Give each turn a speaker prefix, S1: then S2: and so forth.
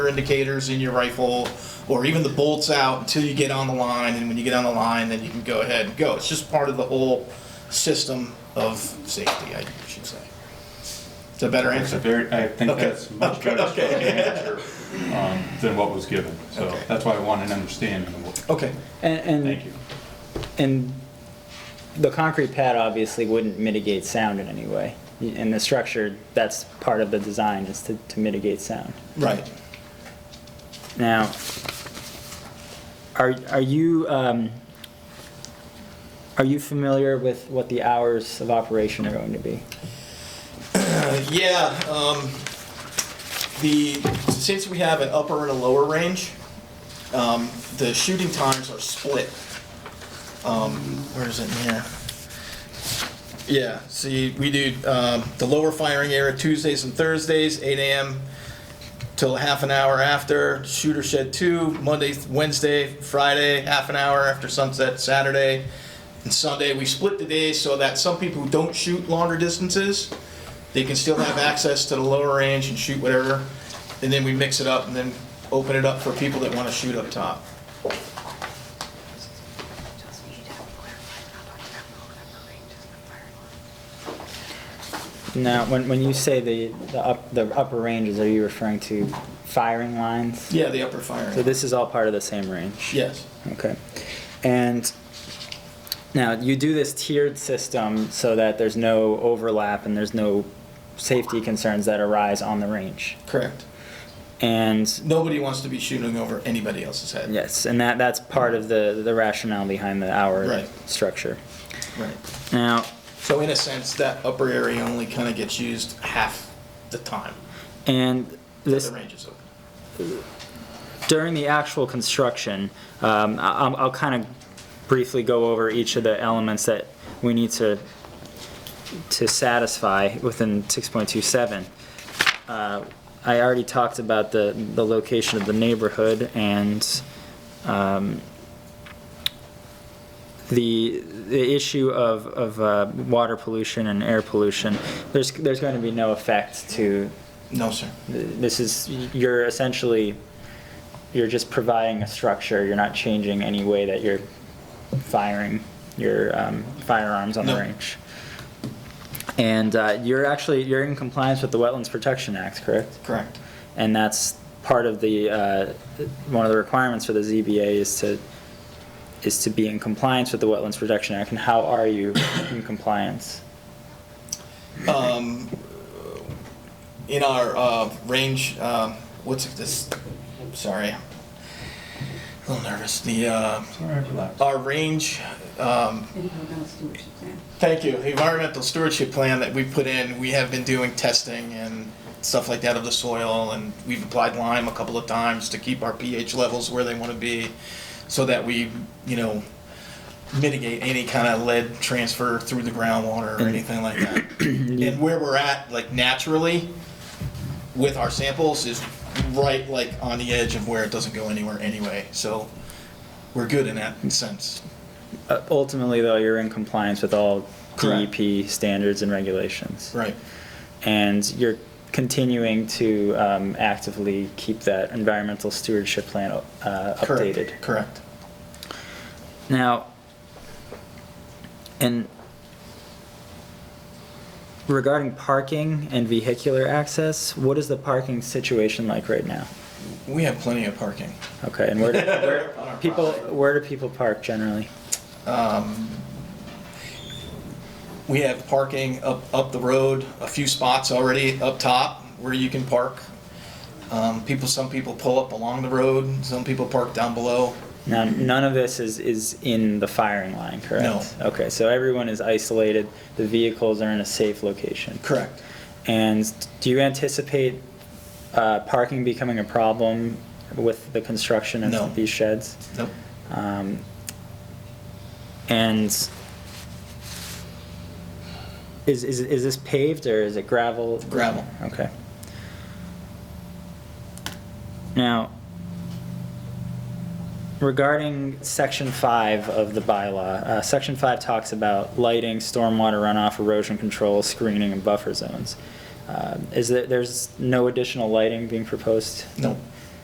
S1: indicators in your rifle or even the bolts out until you get on the line and when you get on the line then you can go ahead and go it's just part of the whole system of safety i should say it's a better
S2: That's a
S1: answer
S2: very, I think
S1: Okay.
S2: that's much better structured answer um, than what was given. So
S1: Okay.
S2: that's why I want an understanding of what,
S1: okay
S3: And,
S2: thank
S3: and,
S2: you.
S3: and the concrete pad obviously wouldn't mitigate sound in any way. And the structure, that's part of the design, is to, to mitigate sound.
S1: right
S3: Now, are, are you, um, are you familiar with what the hours of operation are going to be?
S1: Uh, yeah um, the since we have an upper and a lower range um, the shooting times are split um, where is it yeah yeah see we do um, the lower firing area tuesdays and thursdays 8 a.m till half an hour after shooter shed 2 monday wednesday friday half an hour after sunset saturday and sunday we split the days so that some people who don't shoot longer distances they can still have access to the lower range and shoot whatever and then we mix it up and then open it up for people that want to shoot up top
S3: Now, when, when you say the, the up, the upper ranges, are you referring to firing lines?
S1: yeah the upper firing
S3: So this is all part of the same range?
S1: yes
S3: Okay. And now you do this tiered system so that there's no overlap and there's no safety concerns that arise on the range.
S1: correct
S3: And
S1: nobody wants to be shooting over anybody else's head
S3: yes, and that, that's part of the, the rationale behind the hour
S1: Right.
S3: structure.
S1: right
S3: Now,
S1: so in a sense that upper area only kind of gets used half the time
S3: and
S1: that
S3: this,
S1: the range is open
S3: during the actual construction, um, I- I'll, I'll kind of briefly go over each of the elements that we need to, to satisfy within 6.27. Uh, I already talked about the, the location of the neighborhood and um, the, the issue of, of uh, water pollution and air pollution. There's, there's going to be no effect to
S1: no sir
S3: this is, you're essentially, you're just providing a structure, you're not changing any way that you're firing your um, firearms on the
S1: No.
S3: range. And uh, you're actually, you're in compliance with the Wetlands Protection Act, correct?
S1: correct
S3: And that's part of the, uh, one of the requirements for the ZBA is to, is to be in compliance with the Wetlands Protection Act, and how are you in compliance?
S1: um, in our uh, range, um, what's this? Sorry, a little nervous. The uh,
S2: Sorry, I relaxed.
S1: our range. Um, thank you. Environmental stewardship plan that we put in. We have been doing testing and stuff like that of the soil, and we've applied lime a couple of times to keep our pH levels where they want to be, so that we, you know, mitigate any kind of lead transfer through the groundwater or anything like that. And where we're at, like naturally, with our samples is right like on the edge of where it doesn't go anywhere anyway. So we're good in that sense.
S3: Uh, Ultimately, though, you're in compliance with all
S1: Correct.
S3: DEP standards and regulations.
S1: Right.
S3: and you're continuing to um, actively keep that environmental stewardship plan uh,
S1: Correct.
S3: updated.
S1: Correct.
S3: Now, and regarding parking and vehicular access, what is the parking situation like right now?
S1: We have plenty of parking.
S3: Okay, and where do, where, people where do people park generally?
S1: We have parking up, up the road, a few spots already up top where you can park. Um, people, some people pull up along the road, some people park down below.
S3: Now, none of this is, is in the firing line, correct?
S1: No.
S3: Okay, so everyone is isolated. The vehicles are in a safe location.
S1: Correct.
S3: And do you anticipate uh, parking becoming a problem with the construction
S1: No.
S3: of these sheds?
S1: Nope.
S3: Um, And is, is is this paved or is it gravel?
S1: Gravel.
S3: Okay. Now, regarding section five of the bylaw, uh, section five talks about lighting, stormwater runoff, erosion control, screening, and buffer zones. Uh, Is there, there's no additional lighting being proposed?
S1: Nope.